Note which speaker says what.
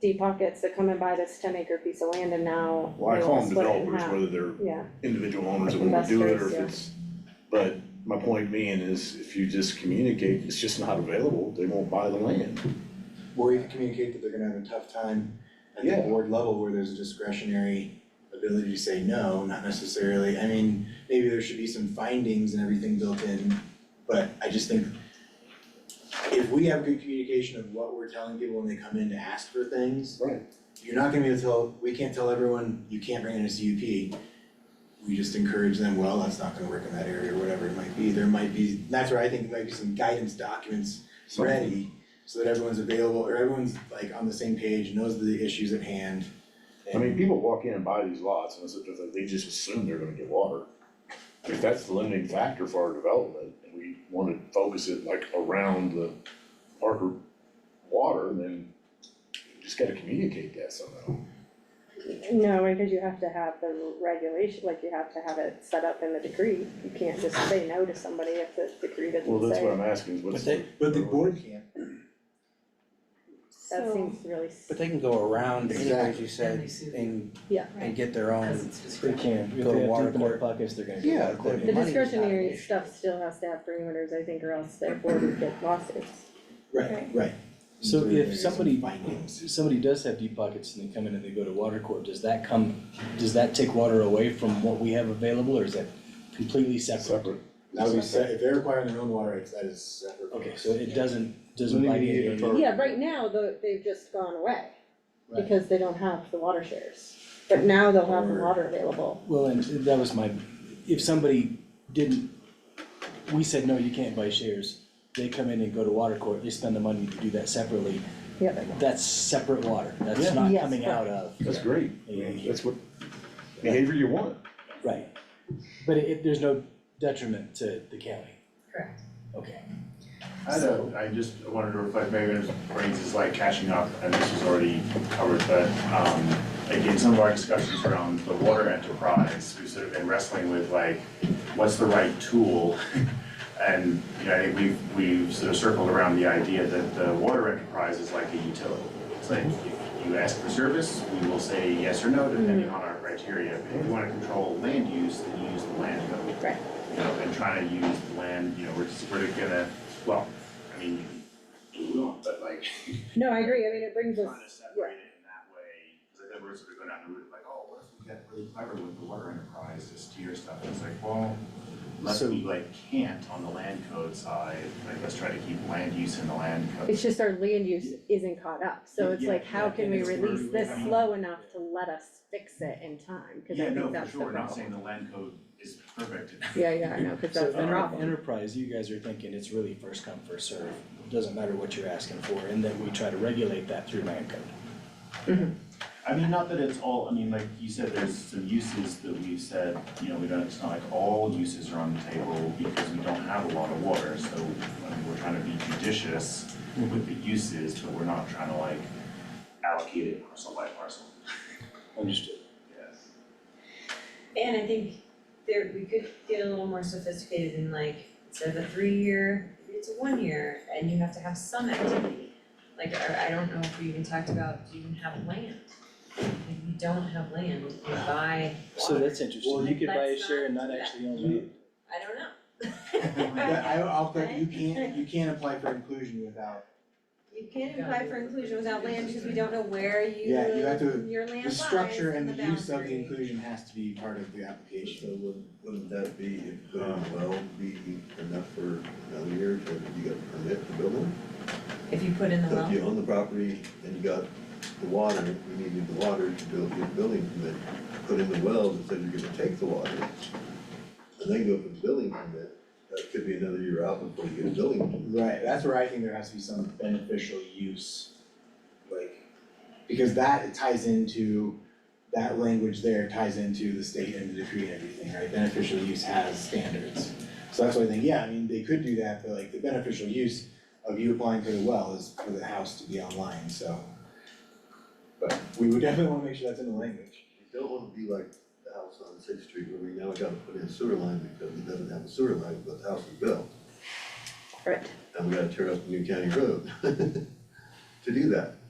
Speaker 1: deep pockets that come and buy this ten acre piece of land and now they
Speaker 2: Well, I
Speaker 1: wanna
Speaker 2: call them
Speaker 1: split it in
Speaker 2: developers,
Speaker 1: half.
Speaker 2: whether they're
Speaker 1: Yeah,
Speaker 2: individual owners that wanna do it or
Speaker 1: Investors,
Speaker 2: if
Speaker 1: yeah.
Speaker 2: it's, but my point being is if you just communicate, it's just not available, they won't buy the land.
Speaker 3: Or you can communicate that they're gonna have a tough time at the
Speaker 2: Yeah.
Speaker 3: board level where there's a discretionary ability to say no, not necessarily, I mean, maybe there should be some findings and everything built in, but I just think if we have good communication of what we're telling people when they come in to ask for things.
Speaker 2: Right.
Speaker 3: You're not gonna be able to tell, we can't tell everyone, you can't bring in a CUP. We just encourage them, well, that's not gonna work in that area or whatever it might be, there might be, that's where I think there might be some guidance documents ready so that everyone's available, or everyone's like on the same page, knows the issues at hand.
Speaker 2: I mean, people walk in and buy these lots and it's, it's like they just assume they're gonna get water. If that's the limiting factor for our development and we wanna focus it like around the Parker water, then you just gotta communicate that somehow.
Speaker 1: no, because you have to have the regulation, like you have to have it set up in the decree, you can't just say no to somebody if the decree doesn't say.
Speaker 2: Well, that's what I'm asking is what's.
Speaker 4: But they,
Speaker 3: But the board can't.
Speaker 1: That
Speaker 5: So-
Speaker 1: seems really, s-
Speaker 4: but they can go around, as you
Speaker 6: Exactly.
Speaker 4: said, and,
Speaker 1: Yeah.
Speaker 4: and get their
Speaker 6: As
Speaker 4: own,
Speaker 6: it's
Speaker 7: They
Speaker 6: described.
Speaker 7: can, if
Speaker 4: Go to
Speaker 7: they have
Speaker 4: water
Speaker 7: deep in their
Speaker 4: court.
Speaker 7: pockets, they're gonna
Speaker 4: Yeah,
Speaker 7: get
Speaker 4: the-
Speaker 7: water court.
Speaker 4: the
Speaker 1: the
Speaker 4: money's not an
Speaker 1: discretionary
Speaker 4: issue.
Speaker 1: stuff still has to have parameters, I think, or else their board would get lawsuits.
Speaker 3: Right, right.
Speaker 7: So
Speaker 3: There-
Speaker 7: if
Speaker 3: there is some
Speaker 7: somebody-
Speaker 3: Findings.
Speaker 7: If somebody does have deep pockets and they come in and they go to water court, does that come, does that take water away from what we have available, or is that completely separate?
Speaker 2: Separate.
Speaker 3: That would be se- if they're requiring their own water rights, that is separate.
Speaker 7: Okay, so it doesn't, doesn't
Speaker 2: Maybe
Speaker 7: like
Speaker 2: you need
Speaker 7: any,
Speaker 2: to defer.
Speaker 1: Yeah, right now, though, they've just gone away,
Speaker 7: Right.
Speaker 1: because they don't have the water shares, but now they'll have the
Speaker 3: Or-
Speaker 1: water available.
Speaker 7: well, and that was my, if somebody didn't, we said, no, you can't buy shares, they come in and go to water court, they spend the money to do that separately,
Speaker 1: Yep.
Speaker 7: that's separate water, that's
Speaker 2: Yeah.
Speaker 7: not
Speaker 1: Yes,
Speaker 7: coming out of.
Speaker 2: That's great, I mean, that's what behavior you want.
Speaker 7: Right, but it, there's no detriment to the county.
Speaker 6: Correct.
Speaker 7: Okay.
Speaker 8: I don't, I just wanted to reflect, maybe this brings is like catching up, and this was already covered, but, um, like in some of our discussions around the water enterprise, we've sort of been wrestling with like, what's the right tool? And, you know, I think we've, we've sort of circled around the idea that the water enterprise is like a utility. It's like, if you ask for service, we will say yes or no depending on our criteria. If you wanna control land use, then you use the land code
Speaker 1: Right.
Speaker 8: you know, and trying to use the land, you know, we're just, we're gonna, well, I mean, you can do what we want, but like,
Speaker 1: No, I agree, I mean, it brings us,
Speaker 8: trying to separate it in that way, cause I think we're sort of going down the route of like, oh, what if we get really clever with the water enterprise to steer stuff, and it's like, well, unless
Speaker 7: So-
Speaker 8: we like can't on the land code side, like, let's try to keep land use in the land code.
Speaker 1: it's just our land use isn't caught up, so it's
Speaker 8: Yeah,
Speaker 1: like, how
Speaker 8: yeah,
Speaker 1: can
Speaker 8: and
Speaker 1: we
Speaker 8: it's where
Speaker 1: release
Speaker 8: we-
Speaker 1: this
Speaker 8: I mean-
Speaker 1: slow enough to let us fix it in time? Cause I
Speaker 8: Yeah, no,
Speaker 1: think
Speaker 8: for
Speaker 1: that's the
Speaker 8: sure, not
Speaker 1: problem.
Speaker 8: saying the land code is perfect.
Speaker 1: Yeah, yeah, I know, cause
Speaker 7: So
Speaker 1: that's the
Speaker 7: enter-
Speaker 1: problem.
Speaker 7: enterprise, you guys are thinking it's really first come, first serve. doesn't matter what you're asking for, and then we try to regulate that through land code.
Speaker 8: I mean, not that it's all, I mean, like you said, there's some uses that we've said, you know, we don't, it's not like all uses are on the table because we don't have a lot of water, so, I mean, we're trying to be judicious with the uses, but we're not trying to like allocate it parcel by parcel.
Speaker 7: Understood.
Speaker 8: Yes.
Speaker 6: And I think there, we could get a little more sophisticated in like, instead of a three-year, it's a one-year, and you have to have some activity. Like, I, I don't know if we even talked about, do you even have land? If you don't have land, you buy
Speaker 7: So
Speaker 6: water.
Speaker 7: that's interesting,
Speaker 3: Well,
Speaker 7: you could buy a
Speaker 6: let's
Speaker 7: share and
Speaker 6: not
Speaker 7: not
Speaker 6: do that.
Speaker 7: actually own land.
Speaker 6: I don't know.
Speaker 8: Oh
Speaker 3: But I, I'll, put- you can't, you can't apply for inclusion without,
Speaker 5: You can't apply for inclusion without land because we don't know where you,
Speaker 3: Yeah, you have to-
Speaker 5: your land
Speaker 3: the
Speaker 5: lies
Speaker 3: structure and
Speaker 5: and
Speaker 3: the
Speaker 5: the
Speaker 3: use of the
Speaker 5: boundary.
Speaker 3: inclusion has to be part of the application.
Speaker 9: So would, wouldn't that be, if put in well, be enough for another year, or you got a permit to build one?
Speaker 6: If you put in the
Speaker 9: So
Speaker 6: well,
Speaker 9: if you own the property and you got the water, you needed the water to build your building permit, put in the well that said you're gonna take the water. And then go for the building permit, that could be another year out before you get a building permit.
Speaker 3: Right, that's where I think there has to be some beneficial use. Like, because that ties into, that language there ties into the state and the decree and everything, right? Beneficial use has standards. So that's why I think, yeah, I mean, they could do that, but like the beneficial use of you applying for the well is for the house to be online, so. But we would definitely wanna make sure that's in the language.
Speaker 9: You don't wanna be like the house on Sixth Street where we now gotta put in a sewer line because it doesn't have a sewer line, but the house is built.
Speaker 1: Right.
Speaker 9: And we gotta tear up the new county road to do that.